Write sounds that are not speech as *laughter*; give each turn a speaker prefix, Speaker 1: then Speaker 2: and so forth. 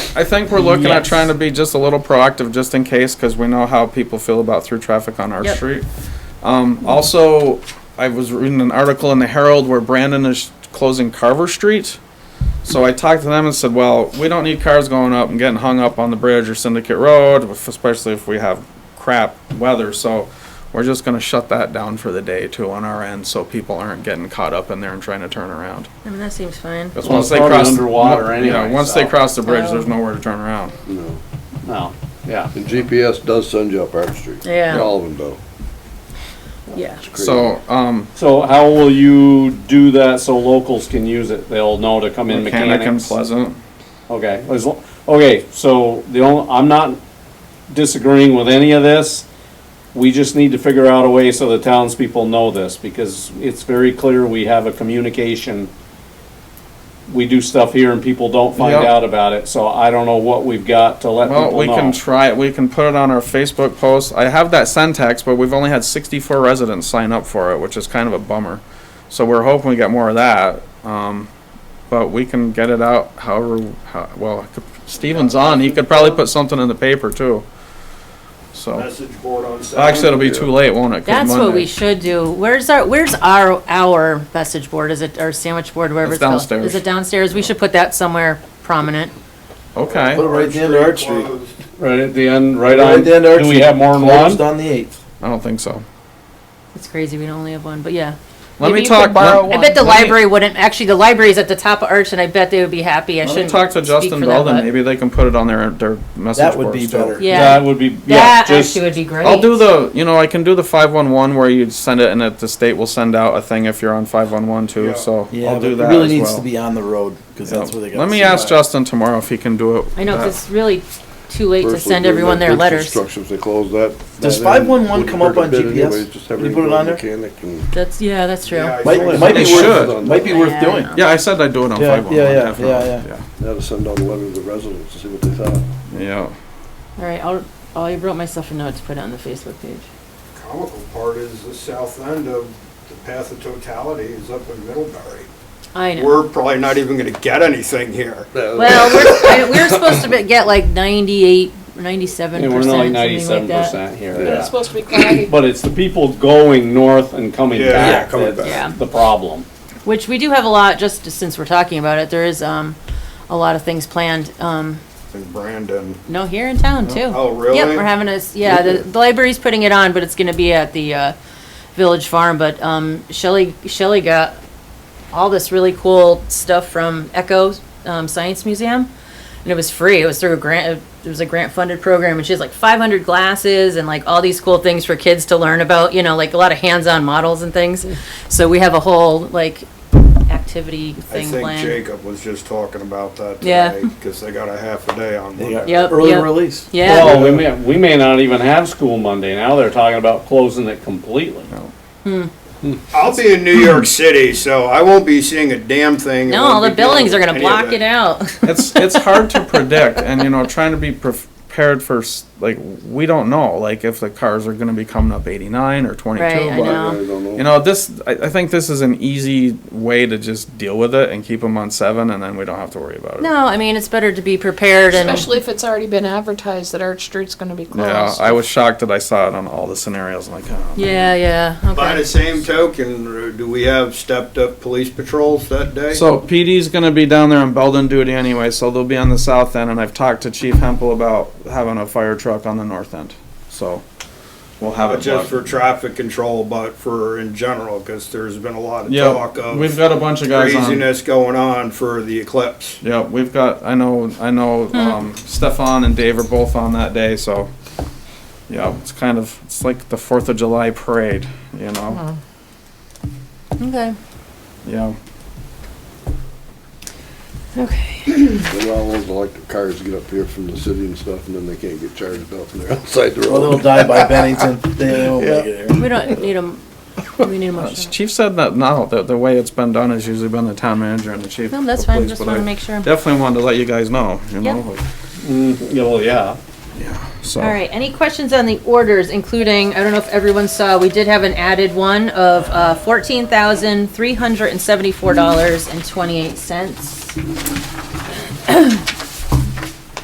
Speaker 1: I think we're looking at
Speaker 2: Yes.
Speaker 1: trying to be just a little proactive, just in case, because we know how people feel about through traffic on our
Speaker 2: Yep.
Speaker 1: street. Um, also, I was reading an article in the Herald where Brandon is closing Carver Street. So I talked to them and said, well, we don't need cars going up and getting hung up on the bridge or Syndicate Road, especially if we have crap weather, so we're just gonna shut that down for the day too on our end, so people aren't getting caught up in there and trying to turn around.
Speaker 2: I mean, that seems fine.
Speaker 1: Because
Speaker 3: Well,
Speaker 1: once
Speaker 3: it's
Speaker 1: they
Speaker 3: probably
Speaker 1: cross.
Speaker 3: underwater
Speaker 1: yeah,
Speaker 3: anyway,
Speaker 1: Once they
Speaker 3: so-
Speaker 1: cross the bridge, there's
Speaker 2: Oh.
Speaker 1: nowhere to turn around.
Speaker 3: No, no, yeah.
Speaker 4: And GPS does send you up Arch Street.
Speaker 2: Yeah.
Speaker 4: All of them do.
Speaker 2: Yeah.
Speaker 4: It's crazy.
Speaker 1: So, um,
Speaker 3: So how will you do that so locals can use it? They'll know to come in
Speaker 1: Mechanic and
Speaker 3: mechanics?
Speaker 1: Pleasant,
Speaker 3: Okay, as lo- okay, so the only, I'm not disagreeing with any of this. We just need to figure out a way so the townspeople know this, because it's very clear we have a communication. We do stuff here and people don't find
Speaker 1: Yep.
Speaker 3: out about it, so I don't know what we've got to let
Speaker 1: well,
Speaker 3: people
Speaker 1: we
Speaker 3: know.
Speaker 1: can try it, we can put it on our Facebook post. I have that Centex, but we've only had sixty-four residents sign up for it, which is kind of a bummer. So we're hoping we get more of that, um, but we can get it out however, how, well, Steven's on, he could probably put something in the paper too. So,
Speaker 5: message board on Saturday.
Speaker 1: actually, it'll be too late, won't it? 'Cause
Speaker 2: That's what we
Speaker 1: Monday-
Speaker 2: should do. Where's our, where's our, our message board? Is it, our sandwich board, wherever
Speaker 1: It's
Speaker 2: it's called?
Speaker 1: downstairs.
Speaker 2: Is it downstairs? We should put that somewhere prominent.
Speaker 1: Okay.
Speaker 6: Put it right at the end of Arch Street.
Speaker 5: Closed.
Speaker 3: Right at the end, right
Speaker 6: Right
Speaker 3: on,
Speaker 6: at the end of Arch
Speaker 3: do we
Speaker 6: Street.
Speaker 3: have more than one?
Speaker 6: Closed on the eighth.
Speaker 1: I don't think so.
Speaker 2: It's crazy, we only have one, but yeah.
Speaker 1: Let me
Speaker 2: Maybe you
Speaker 1: talk.
Speaker 2: could borrow
Speaker 1: let-
Speaker 2: I bet the
Speaker 1: let me-
Speaker 2: library wouldn't, actually, the library's at the top of Arch, and I bet they would be happy. I
Speaker 1: Let me
Speaker 2: shouldn't
Speaker 1: talk to
Speaker 2: speak for
Speaker 1: Justin
Speaker 2: them,
Speaker 1: Belden.
Speaker 2: but-
Speaker 1: Maybe they can put it on their their message
Speaker 6: That would
Speaker 1: board
Speaker 6: be
Speaker 1: still.
Speaker 6: better.
Speaker 3: That
Speaker 2: Yeah,
Speaker 3: would be, yeah,
Speaker 2: that
Speaker 3: just,
Speaker 2: actually would be great.
Speaker 1: I'll do the. You know, I can do the five one one where you send it, and it, the state will send out a thing if you're on five one one too.
Speaker 5: Yeah.
Speaker 1: So
Speaker 6: Yeah,
Speaker 1: I'll
Speaker 6: but
Speaker 1: do
Speaker 6: it
Speaker 1: that.
Speaker 6: really
Speaker 1: as
Speaker 6: needs
Speaker 1: well.
Speaker 6: to be on the road because
Speaker 1: Yeah.
Speaker 6: that's where they got.
Speaker 1: Let me ask Justin tomorrow if he can do it.
Speaker 2: I know, 'cause
Speaker 1: that.
Speaker 2: it's really too late to
Speaker 4: First
Speaker 2: send
Speaker 4: they do
Speaker 2: everyone
Speaker 4: that
Speaker 2: their
Speaker 4: bridge
Speaker 2: letters.
Speaker 4: Constructions, they close that.
Speaker 6: Does
Speaker 4: by then.
Speaker 6: 511
Speaker 4: Wouldn't
Speaker 6: come up
Speaker 4: hurt a
Speaker 6: on
Speaker 4: bit
Speaker 6: GPS?
Speaker 4: anyways, just have
Speaker 6: Can you
Speaker 4: everybody
Speaker 6: put it on there?
Speaker 4: Mechanic and.
Speaker 2: That's, yeah, that's true.
Speaker 5: Yeah, I
Speaker 6: Might,
Speaker 5: think
Speaker 6: might be
Speaker 1: They
Speaker 6: worth,
Speaker 1: should.
Speaker 6: might be worth
Speaker 2: Yeah.
Speaker 6: doing.
Speaker 1: Yeah, I said I do it on
Speaker 6: Yeah,
Speaker 1: five one one.
Speaker 6: yeah, yeah, yeah,
Speaker 4: Now to send out a letter to the residents to see what they thought.
Speaker 1: yeah. Yeah.
Speaker 2: All right, I'll, oh, I wrote myself a note to put it on the Facebook page.
Speaker 5: The Comical part is the south end of the path of totality is up in Middlebury.
Speaker 2: I know.
Speaker 5: We're probably not even gonna get anything here.
Speaker 3: *laughs*
Speaker 2: Well, we're, I- we're supposed to be- get like 98, 97
Speaker 3: yeah, we're
Speaker 2: percent,
Speaker 3: not like
Speaker 2: something
Speaker 3: ninety-seven
Speaker 2: like that.
Speaker 3: percent here,
Speaker 4: But
Speaker 3: yeah.
Speaker 4: it's
Speaker 7: supposed to be cloudy.
Speaker 3: But it's the people going north and coming
Speaker 5: Yeah,
Speaker 3: back
Speaker 5: coming back.
Speaker 2: Yeah.
Speaker 3: that's the problem.
Speaker 2: Which we do have a lot, just since we're talking about it, there is, um, a lot of things planned, um,
Speaker 5: And Brandon,
Speaker 2: no, here in town too.
Speaker 5: Oh, really?
Speaker 2: Yep, we're having a, s- yeah, the, the library's putting it on, but it's gonna be at the, uh, Village Farm, but, um, Shelley, Shelley got all this really cool stuff from Echo, um, Science Museum. and it was free. It was through a grant. uh, It was a grant funded program, and she has like 500 glasses and like all these cool things for kids to learn about. You know, like a lot of hands-on models and things.
Speaker 5: Hmm.
Speaker 2: So we have a whole like activity
Speaker 5: I
Speaker 2: thing
Speaker 5: think
Speaker 2: planned.
Speaker 5: Jacob was just talking about that
Speaker 2: Yeah.
Speaker 5: today, cause they got a half a day on
Speaker 6: They
Speaker 5: Monday.
Speaker 6: got
Speaker 2: Yep,
Speaker 6: Early
Speaker 2: yep.
Speaker 6: release.
Speaker 2: Yeah,
Speaker 3: Well, we may, we may not even have school Monday now, they're talking about closing it completely.
Speaker 5: I'll be in New York City, so I won't be seeing a damn thing. and
Speaker 2: no,
Speaker 5: won't
Speaker 2: all the
Speaker 5: be dealing
Speaker 2: buildings are
Speaker 5: with
Speaker 2: gonna
Speaker 5: any of
Speaker 2: block it out.
Speaker 1: it's it's hard to predict and you know trying to be prepared for s- like we don't know like if the cars are going to be coming up 89 or 22
Speaker 2: Right, I
Speaker 1: but
Speaker 2: know.
Speaker 4: I don't know.
Speaker 1: you know this I, I think this is an easy way to just deal with it and keep them on seven and then we don't have to worry about it
Speaker 2: no, I mean it's better to be prepared and
Speaker 7: Especially if it's already been advertised that Arch Street's gonna be
Speaker 1: yeah
Speaker 7: closed.
Speaker 1: i was shocked that i saw it on all the scenarios i'm like oh,
Speaker 2: yeah, yeah.
Speaker 5: By
Speaker 2: Okay.
Speaker 5: the same token, do we have stepped up police patrols that day?
Speaker 1: So PD's going to be down there on Belden duty anyway, so they'll be on the south end. And I've talked to Chief Hempel about having a fire truck on the north end, so we'll have it.
Speaker 5: Not just
Speaker 1: blocked.
Speaker 5: for traffic control, but for in general, because there's been a lot of talk
Speaker 1: yeah, we've
Speaker 5: of
Speaker 1: got a bunch of guys on.
Speaker 5: craziness going on for the eclipse.
Speaker 1: Yeah, we've got, I know, I
Speaker 2: Hmm.
Speaker 1: know, um, Stefan and Dave are both on that day, so, yeah, it's kind of, it's like the Fourth of July parade, you
Speaker 2: Hmm.
Speaker 1: know?
Speaker 2: Okay.
Speaker 1: Yeah,
Speaker 2: Okay.
Speaker 4: They all those electric cars get up here from the city and stuff, and then they can't get charged up, and they're *laughs* outside the
Speaker 6: Well,
Speaker 4: road.
Speaker 6: they'll die by Bennington.
Speaker 1: *laughs*
Speaker 6: They won't make it here.
Speaker 2: We don't need them. We need a
Speaker 1: Uh,
Speaker 2: motion.
Speaker 1: Chief said that, no, the, the way it's been done has usually been the town manager and the chief.
Speaker 2: No, that's
Speaker 1: of
Speaker 2: fine.
Speaker 1: police,
Speaker 2: Just
Speaker 1: but
Speaker 2: want to
Speaker 1: I
Speaker 2: make sure.
Speaker 1: Definitely wanted to let you guys know, you
Speaker 2: Yeah.
Speaker 1: know,
Speaker 3: Mm, yeah, well, yeah.
Speaker 1: so.
Speaker 2: All right, any questions on the orders, including, I don't know if everyone saw, we did have an added one of uh, $14,374.28.